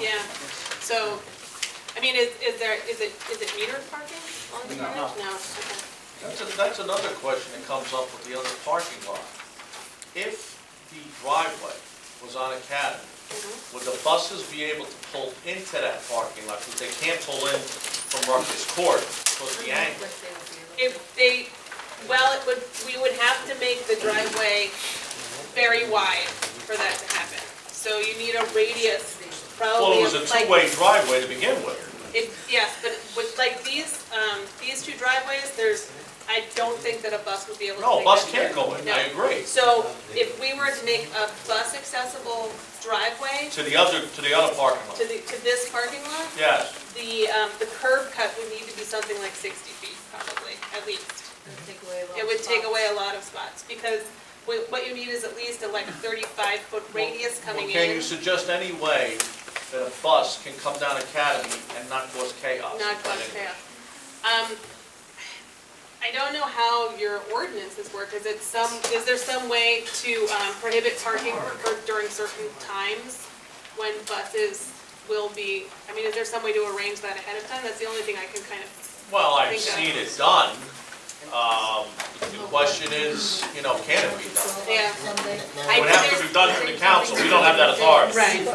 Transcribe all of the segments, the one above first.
Yeah, so, I mean, is, is there, is it, is it metered parking on the No. garage? No, okay. That's, a- that's another question that comes up with the other parking lot. If the driveway was on Academy, Mhm. would the buses be able to pull into that parking lot? Because they can't pull in from Rutgers Court because of the angle. If they, well, it would, we would have to make the driveway very wide for that to happen. So you need a radius, Well, probably it of was a like. two-way driveway to begin with. It, yes, but with like these, um, these two driveways, there's, I don't think that a bus would be able to. No, a make bus that can't turn. go in, No. I agree. So if we were to make a bus accessible driveway To the other, to the other parking to lot, the, to this parking lot, yes. the, um, the curb cut would need to be something like sixty feet probably, at least. It would take away a lot of spots because what, what you need is at least a like thirty-five foot radius Well, coming Can you in, suggest any way that a bus can come down Academy and not cause chaos? not close path. Um, I don't know how your ordinances work. Is it some, is there some way to um, prohibit parking for during certain times when buses will be, I mean, is there some way to arrange that ahead of time? That's the only thing I can kind of, Well, I I've think seen it done. Um, The question is, you know, can it be done? yeah. It would have to be done from the council, we don't have that authority. Right.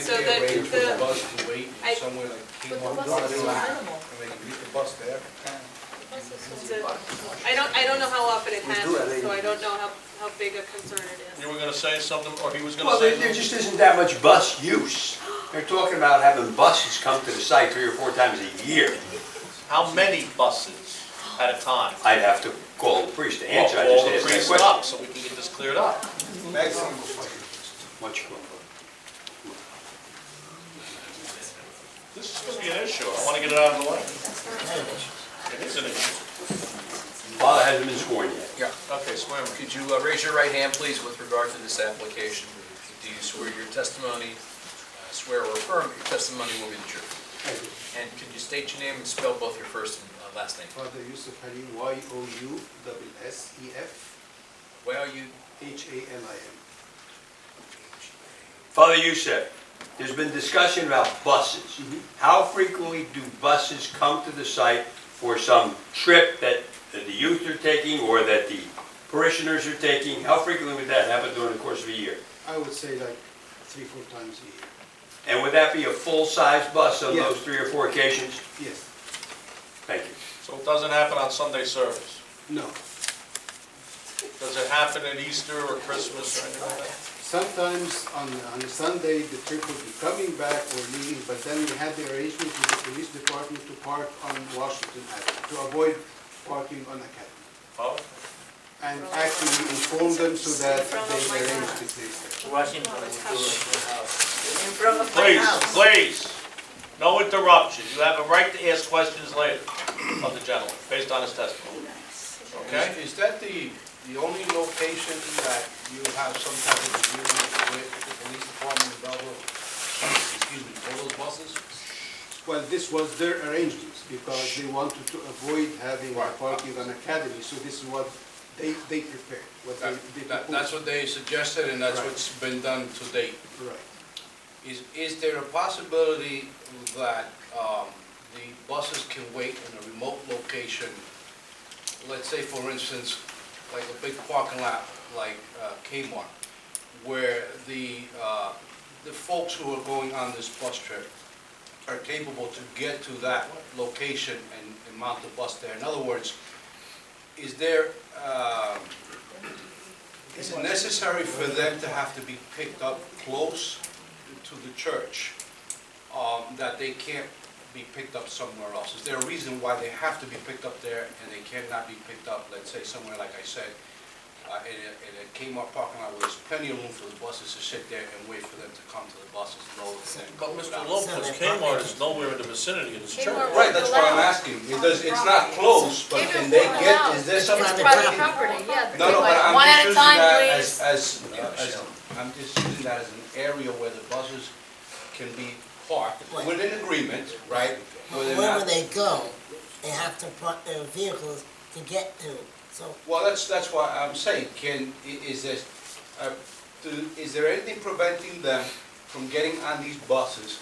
So the- Maybe a range for the- the bus to wait I- somewhere like But the Kmart. bus is so minimal. And they can meet the bus there. It's a- I don't, I don't know how often it We do at happens, so I eighty. don't know how, how big a concern it is. You were gonna say something, or he was gonna Well, say there, there something? just isn't that much bus use. They're talking about having buses come to the site three or four times a year. How many buses at a time? I'd have to call the priest to answer, I Well, just All the asked that priests question. up, so we can get this cleared up. Maximum. Much cooler. This is gonna be an issue, I wanna get it out of the way. It is an issue. Father hasn't been sworn yet. Okay, swear me. Could you uh, raise your right hand, please, with regard to this application? Do you swear your testimony, uh, swear or affirm that your testimony will be the truth? And could you state your name and spell both your first and uh, last name? Father Yusuf Ali, Y O U double S E F Well, you, H A L I M. Father Youssef, there's been discussion about buses. How frequently do buses come to the site for some trip that that the youth are taking or that the parishioners are taking? How frequently would that happen during the course of a year? I would say like three, four times a And would that be a full-size bus on Yeah. those three or four occasions? year. Yes, Thank you. So it doesn't happen on Sunday service? no. Does it happen at Easter or Christmas or anything like that? Sometimes on, on Sunday, the trip would be coming back or leaving, but then we had the arrangement with the police department to park on Washington Avenue, to avoid parking on Academy. Oh, And actually we informed them so that they arranged it later. Washington Please, please, no interruption. You have a right to ask questions later of the gentleman, based on his testimony. Okay? Is that the, the only location that you have some type of agreement with the police department about, excuse me, all those buses? Well, this was their arrangements because they wanted to avoid having a parking on Academy, so this is what they, they prepared, what they, they That- proposed. That's what they suggested and that's Right. what's been done to date. Right. Is, is there a possibility that um, the buses can wait in a remote location? Let's say, for instance, like a big parking lot like uh, Kmart, where the, uh, the folks who are going on this bus trip are capable to get to that location and- and mount the bus there. In other words, is there, um, is it necessary for them to have to be picked up close to the church, um, that they can't be picked up somewhere else? Is there a reason why they have to be picked up there and they cannot be picked up, let's say, somewhere, like I said, uh, in a in a Kmart parking lot where there's plenty of room for the buses to sit there and wait for them to come to the buses, load and then But go Mr. down? Lopez, Kmart is nowhere in the vicinity of this church. Kmart- Right, that's what I'm asking, because it's not close, but can they get, is there some? It's private property, yeah. No, no, but I'm One just at a using time, that please. as, as, uh, as, I'm just using that as an area where the buses can be parked Right. with an agreement, right? where they're Wherever not- they go, they have to park their vehicles to get to. So Well, that's, that's why I'm saying, can, i- is there, uh, do- is there anything preventing them from getting on these buses